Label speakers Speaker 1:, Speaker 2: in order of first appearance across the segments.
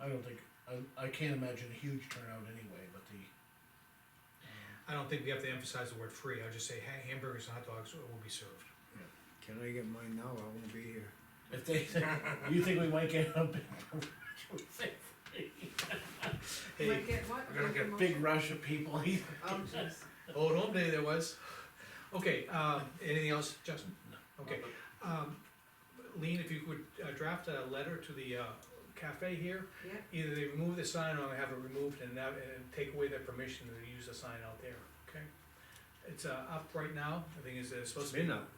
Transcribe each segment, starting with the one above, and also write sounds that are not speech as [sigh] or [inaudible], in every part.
Speaker 1: I don't think, I, I can't imagine a huge turnout anyway, but the,
Speaker 2: I don't think we have to emphasize the word free, I'll just say ha- hamburgers and hot dogs will be served.
Speaker 3: Can I get mine now? I won't be here.
Speaker 1: um, if they, [laughs] you think we might get a big,
Speaker 2: Hey,
Speaker 4: Might get what?
Speaker 5: we're gonna get
Speaker 4: Make a
Speaker 1: big
Speaker 4: motion.
Speaker 1: rush of people, [laughs]
Speaker 4: Oh, jeez.
Speaker 2: Old home day there was. Okay, um, anything else, Justin? Okay, um, Lean, if you could uh, draft a letter to the, uh, cafe here,
Speaker 4: Yeah,
Speaker 2: either they remove the sign or they have it removed and that, and take away their permission to use the sign out there, okay? It's, uh, up right now, I think it's uh,
Speaker 3: It's
Speaker 2: supposed to be,
Speaker 3: been up,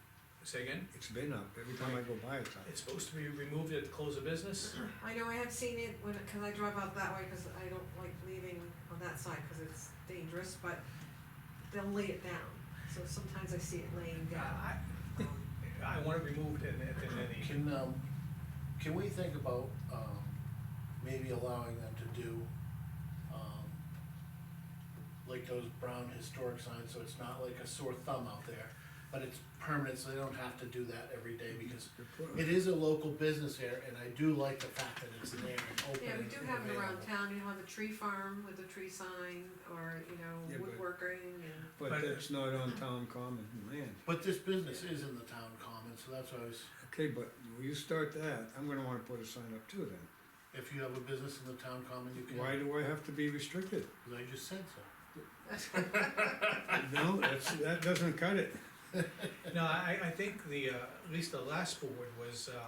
Speaker 2: say again,
Speaker 3: it's been up, every time I go by it's up.
Speaker 2: it's supposed to be removed at the close of business,
Speaker 4: I know, I have seen it when, cause I drive out that way, cause I don't like leaving on that side, cause it's dangerous, but they'll lay it down, so sometimes I see it laying
Speaker 2: Yeah,
Speaker 4: down.
Speaker 2: I,
Speaker 4: Um,
Speaker 2: I want it removed and, and then the.
Speaker 1: Can, um, can we think about, um, maybe allowing them to do, um, like those brown historic signs, so it's not like a sore thumb out there, but it's permanent, so they don't have to do that every day, because
Speaker 3: Good point.
Speaker 1: it is a local business here, and I do like the fact that it's there and open.
Speaker 4: Yeah, we
Speaker 1: and
Speaker 4: do have it around
Speaker 1: available.
Speaker 4: town, you have a tree farm with a tree sign, or, you
Speaker 3: Yeah,
Speaker 4: know,
Speaker 3: but-
Speaker 4: woodworking and.
Speaker 5: [laughs]
Speaker 2: uh,
Speaker 3: But that's not on town common land.
Speaker 1: But this business is in the town common, so that's why I was,
Speaker 3: Okay, but when you start that, I'm gonna wanna put a sign up too then.
Speaker 1: if you have a business in the town common, you can,
Speaker 3: Why do I have to be restricted?
Speaker 2: [laughs]
Speaker 1: 'cause I just said so.
Speaker 3: No, that's, that doesn't cut it.
Speaker 2: No, I, I think the, uh, at least the last board was, uh,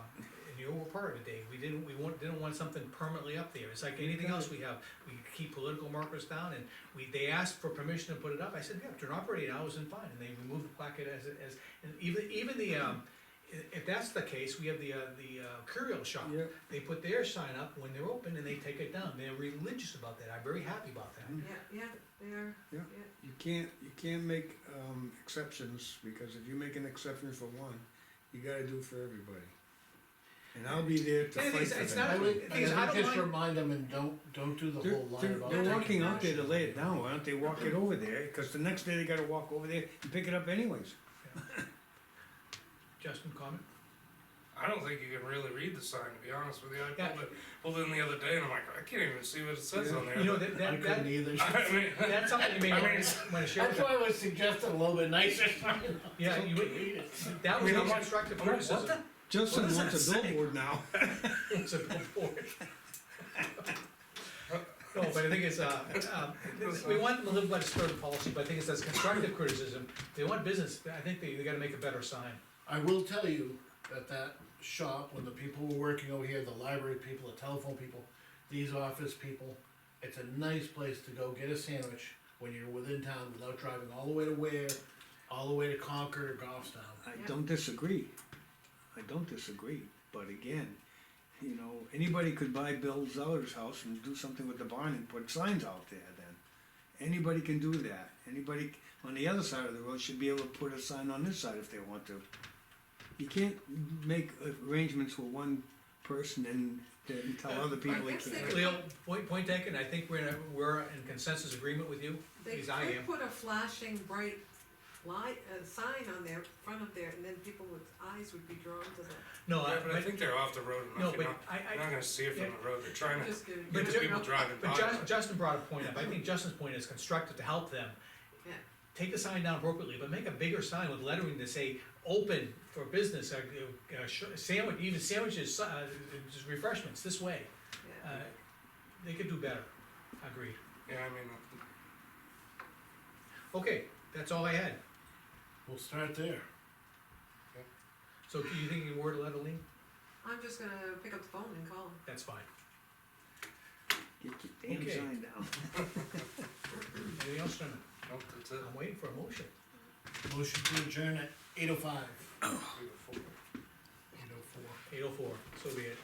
Speaker 2: and you were part of it, Dave, we didn't, we want, didn't want something permanently up there, it's like anything else we have, we keep political markers down, and we, they asked for permission to put it up, I said, yeah, during operating hours and fine, and they removed the plaque as, as, and even, even the, um, i- if that's the case, we have the, uh, the uh, Curio shop,
Speaker 3: Yeah.
Speaker 2: they put their sign up when they're open and they take it down, they're religious about that, I'm very happy about that.
Speaker 4: Yeah, yeah, they are,
Speaker 3: Yeah.
Speaker 4: yeah.
Speaker 3: You can't, you can't make, um, exceptions, because if you make an exception for one, you gotta do it for everybody. And I'll be there to
Speaker 2: And it
Speaker 3: fight
Speaker 2: is-
Speaker 3: for
Speaker 2: it's
Speaker 3: that.
Speaker 2: not-
Speaker 1: I would,
Speaker 2: The thing is, I
Speaker 1: I would
Speaker 2: don't
Speaker 1: just
Speaker 2: mind-
Speaker 1: remind them and don't, don't do the
Speaker 3: They're,
Speaker 1: whole line
Speaker 3: they're,
Speaker 1: about.
Speaker 3: they're
Speaker 4: taking
Speaker 3: walking out there
Speaker 4: action.
Speaker 3: to lay it down, why don't they walk it over there, cause the next day they gotta walk over there and pick it up anyways.
Speaker 2: Justin, comment?
Speaker 5: I don't think you can really read the sign, to be honest with you. I
Speaker 2: Yeah.
Speaker 5: pulled it, pulled in the other day and I'm like, I can't even see what it says on there.
Speaker 2: You know, that,
Speaker 1: I
Speaker 2: that,
Speaker 1: couldn't
Speaker 2: that,
Speaker 3: [laughs]
Speaker 1: either.
Speaker 5: I mean,
Speaker 2: that's something you may
Speaker 5: I mean,
Speaker 2: wanna,
Speaker 5: it's-
Speaker 2: wanna share with
Speaker 1: That's
Speaker 2: them.
Speaker 1: why I was suggesting a little bit nicer.
Speaker 2: Yeah, you,
Speaker 1: Read it.
Speaker 2: that
Speaker 5: I
Speaker 2: was
Speaker 5: mean,
Speaker 2: a
Speaker 5: I'm like,
Speaker 2: constructive
Speaker 5: I'm like, what
Speaker 2: criticism.
Speaker 3: Justin
Speaker 5: does that
Speaker 3: wants a
Speaker 5: say?
Speaker 3: billboard now.
Speaker 2: [laughs] It's a billboard. No, but I think it's, uh, um, we want them to live by the spirit of policy, but I think it's that's constructive criticism. They want business, I think they, they gotta make a better sign.
Speaker 1: I will tell you that that shop, when the people were working over here, the library people, the telephone people, these office people, it's a nice place to go get a sandwich when you're within town without driving all the way to Ware, all the way to Concord or Goffstown.
Speaker 3: I
Speaker 4: Yeah.
Speaker 3: don't disagree. I don't disagree, but again, you know, anybody could buy Bill Zeller's house and do something with the barn and put signs out there then. Anybody can do that. Anybody on the other side of the road should be able to put a sign on this side if they want to. You can't make arrangements with one person and then tell other people they
Speaker 4: Uh, guess they
Speaker 3: can't.
Speaker 4: could-
Speaker 2: Leo, point, point taken, I think we're in, a- we're in consensus agreement with you, at
Speaker 4: They
Speaker 2: least I
Speaker 4: could
Speaker 2: am.
Speaker 4: put a flashing bright light, uh, sign on their, front of there, and then people with eyes would be drawn to that.
Speaker 2: No, I,
Speaker 5: Yeah, but I think they're off the road
Speaker 2: no,
Speaker 5: enough.
Speaker 2: but
Speaker 5: You're not,
Speaker 2: I,
Speaker 5: you're
Speaker 2: I,
Speaker 5: not gonna see it from the road. They're trying to
Speaker 4: Just kidding.
Speaker 2: But
Speaker 5: get the
Speaker 2: ju-
Speaker 5: people driving by.
Speaker 2: but Justin, Justin brought a point up, I think Justin's point is constructive to help them.
Speaker 4: Yeah.
Speaker 2: take the sign down appropriately, but make a bigger sign with lettering to say, open for business, uh, uh, sh- sandwich, even sandwiches, uh, just refreshments, this way. Uh,
Speaker 4: Yeah,
Speaker 2: They could do better, agreed.
Speaker 5: Yeah, I mean,
Speaker 2: Okay, that's all I had.
Speaker 1: We'll start there.
Speaker 2: So do you think you word a letter, Lean?
Speaker 4: I'm just gonna pick up the phone and call 'em.
Speaker 2: That's fine.
Speaker 3: Get your damn
Speaker 2: Okay.
Speaker 3: sign down.
Speaker 2: Anything else, gentlemen?
Speaker 5: nope, that's it.
Speaker 2: I'm waiting for a motion.
Speaker 1: Motion to adjourn at eight oh five. Eight oh four.
Speaker 2: Eight oh four, so be it.